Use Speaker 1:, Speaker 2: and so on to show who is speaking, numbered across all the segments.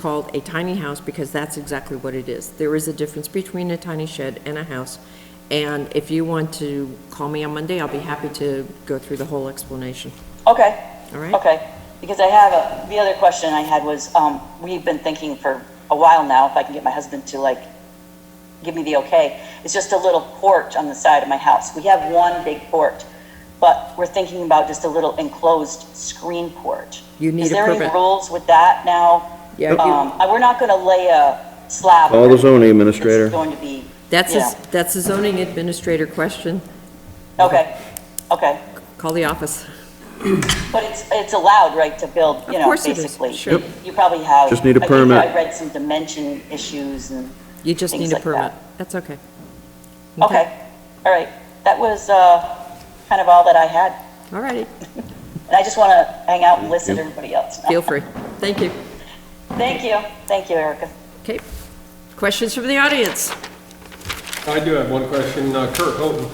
Speaker 1: called a tiny house because that's exactly what it is. There is a difference between a tiny shed and a house. And if you want to call me on Monday, I'll be happy to go through the whole explanation,
Speaker 2: Okay,
Speaker 1: all right?
Speaker 2: okay. Because I have, a- the other question I had was, um, we've been thinking for a while now, if I can get my husband to like, give me the okay, it's just a little porch on the side of my house. We have one big porch, but we're thinking about just a little enclosed screen porch.
Speaker 1: You need
Speaker 2: Is
Speaker 1: a
Speaker 2: there any
Speaker 1: permit.
Speaker 2: rules with that now?
Speaker 1: Yeah,
Speaker 2: Um,
Speaker 1: you-
Speaker 2: I- we're not gonna lay a slab.
Speaker 3: Call the zoning
Speaker 2: It's
Speaker 3: administrator.
Speaker 2: going to be,
Speaker 1: That's,
Speaker 2: yeah.
Speaker 1: a that's a zoning administrator question.
Speaker 2: okay, okay.
Speaker 1: Call the office.
Speaker 2: But it's, it's allowed, right, to build, you
Speaker 1: Of
Speaker 2: know,
Speaker 1: course it is,
Speaker 2: basically?
Speaker 1: sure. Yep.
Speaker 2: You probably have.
Speaker 3: Just need a
Speaker 2: I think
Speaker 3: permit.
Speaker 2: I read some dimension issues and,
Speaker 1: You just
Speaker 2: Things
Speaker 1: need a
Speaker 2: like
Speaker 1: permit.
Speaker 2: that.
Speaker 1: That's okay.
Speaker 2: okay, all right. That was uh, kind of all that I had.
Speaker 1: All righty,
Speaker 2: And I just want to hang out and listen to everybody else.
Speaker 1: feel free. Thank you.
Speaker 2: Thank you, thank you, Erica.
Speaker 1: Okay. Questions from the audience?
Speaker 4: I do have one question, Uh, Kurt Houghton.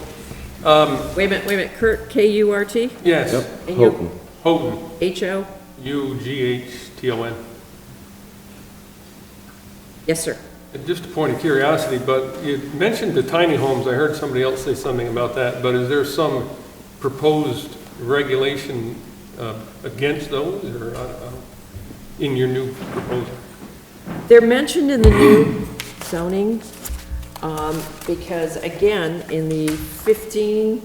Speaker 1: Wait a minute, wait a minute. Kurt, K-U-R-T?
Speaker 4: Yes,
Speaker 1: And you're
Speaker 3: Houghton.
Speaker 4: Houghton,
Speaker 1: H-O?
Speaker 4: U-G-H-T-O-N.
Speaker 1: Yes, sir.
Speaker 4: And Just a point of curiosity, but you mentioned the tiny homes, I heard somebody else say something about that, but is there some proposed regulation uh, against those, or I don't know, in your new proposal?
Speaker 1: They're mentioned in the new zoning, um, because again, in the 15,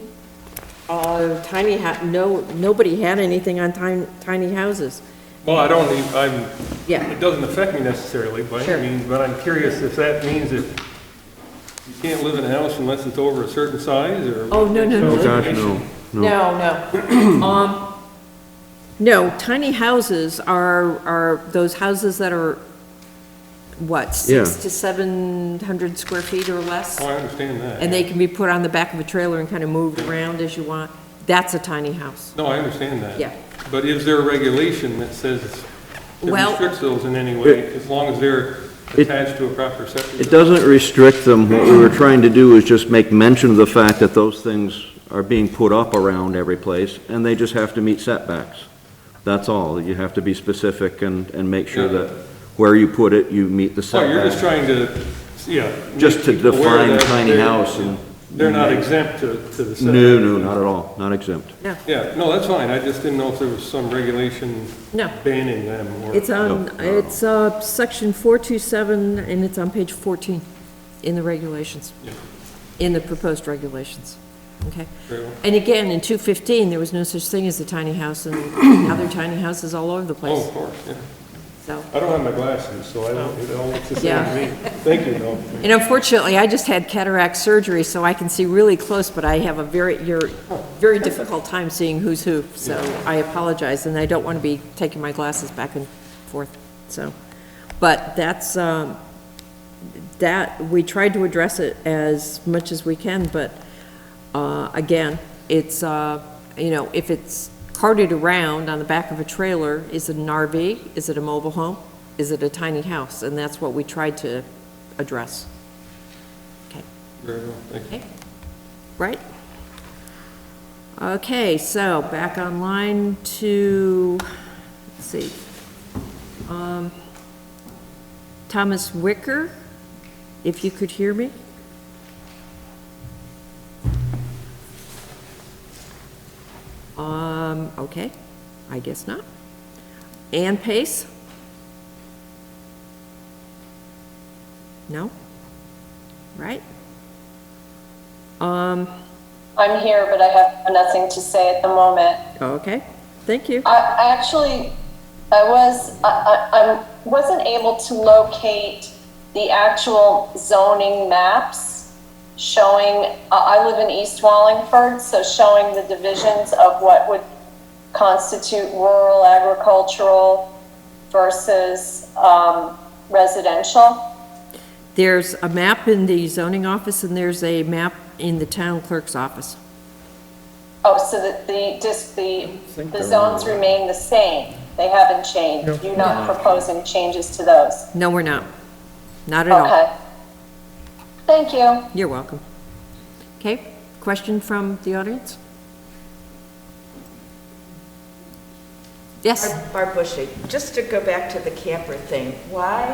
Speaker 1: uh, tiny ha, no, nobody had anything on tiny, tiny houses.
Speaker 4: Well, I don't, e- I'm,
Speaker 1: Yeah.
Speaker 4: it doesn't affect me necessarily, but
Speaker 1: Sure.
Speaker 4: I mean, but I'm curious if that means that you can't live in a house unless it's over a certain size, or?
Speaker 1: Oh, no, no, no.
Speaker 3: Oh, gosh, no.
Speaker 1: No, no. Um, No, tiny houses are, are those houses that are, what, six
Speaker 3: Yeah.
Speaker 1: to 700 square feet or less?
Speaker 4: Oh, I understand that.
Speaker 1: And they can be put on the back of a trailer and kind of moved around as you want. That's a tiny house.
Speaker 4: No, I understand that.
Speaker 1: Yeah.
Speaker 4: But is there a regulation that says, that
Speaker 1: Well-
Speaker 4: restricts those in any way, as long as they're
Speaker 3: It-
Speaker 4: attached to a proper septic?
Speaker 3: It doesn't restrict them. What we were trying to do is just make mention of the fact that those things are being put up around every place, and they just have to meet setbacks. That's all. You have to be specific and, and make sure
Speaker 4: Yeah.
Speaker 3: that where you put it, you meet the
Speaker 4: So you're just
Speaker 3: setbacks.
Speaker 4: trying to, yeah. make
Speaker 3: Just to
Speaker 4: people aware
Speaker 3: define
Speaker 4: that
Speaker 3: tiny
Speaker 4: they're-
Speaker 3: house and.
Speaker 4: They're not exempt to, to the setback.
Speaker 3: No, no, not at all. Not exempt.
Speaker 1: No,
Speaker 4: Yeah, no, that's fine, I just didn't know if there was some regulation
Speaker 1: No.
Speaker 4: banning them, or,
Speaker 1: it's on,
Speaker 3: No, no.
Speaker 1: it's uh, section 427, and it's on page 14 in the regulations, in the proposed regulations, okay?
Speaker 4: Very well.
Speaker 1: And again, in 215, there was no such thing as a tiny house, and now there are tiny houses all over the
Speaker 4: oh, of
Speaker 1: place,
Speaker 4: course, yeah.
Speaker 1: so.
Speaker 4: I don't have my glasses, so I don't, it all looks the same
Speaker 1: Yeah.
Speaker 4: to me. Thank you, though.
Speaker 1: And unfortunately, I just had cataract surgery, so I can see really close, but I have a very, you're, very difficult time seeing who's who, so I apologize, and I don't want to be taking my glasses back and forth, so. But that's, um, that, we tried to address it as much as we can, but, uh, again, it's, uh, you know, if it's carted around on the back of a trailer, is it an RV? Is it a mobile home? Is it a tiny house? And that's what we tried to address. Okay,
Speaker 4: Very well, thank you.
Speaker 1: right? Okay, so back online to, let's see. Um, Thomas Wicker, if you could hear me? Um, okay, I guess not. Ann Pace? No? Right? Um,
Speaker 5: I'm here, but I have nothing to say at the moment.
Speaker 1: Oh, Okay, thank you.
Speaker 5: I, I actually, I was, I, I, I wasn't able to locate the actual zoning maps showing, I, I live in East Wallingford, so showing the divisions of what would constitute rural agricultural versus, um, residential.
Speaker 1: There's a map in the zoning office, and there's a map in the town clerk's office.
Speaker 5: Oh, so that the, just the, the zones remain the same? They haven't changed? You're not proposing changes to those?
Speaker 1: No, we're not. Not at all.
Speaker 5: Okay. Thank you.
Speaker 1: You're welcome. Okay, question from the audience? Yes?
Speaker 6: Barb Bushy, just to go back to the camper thing, why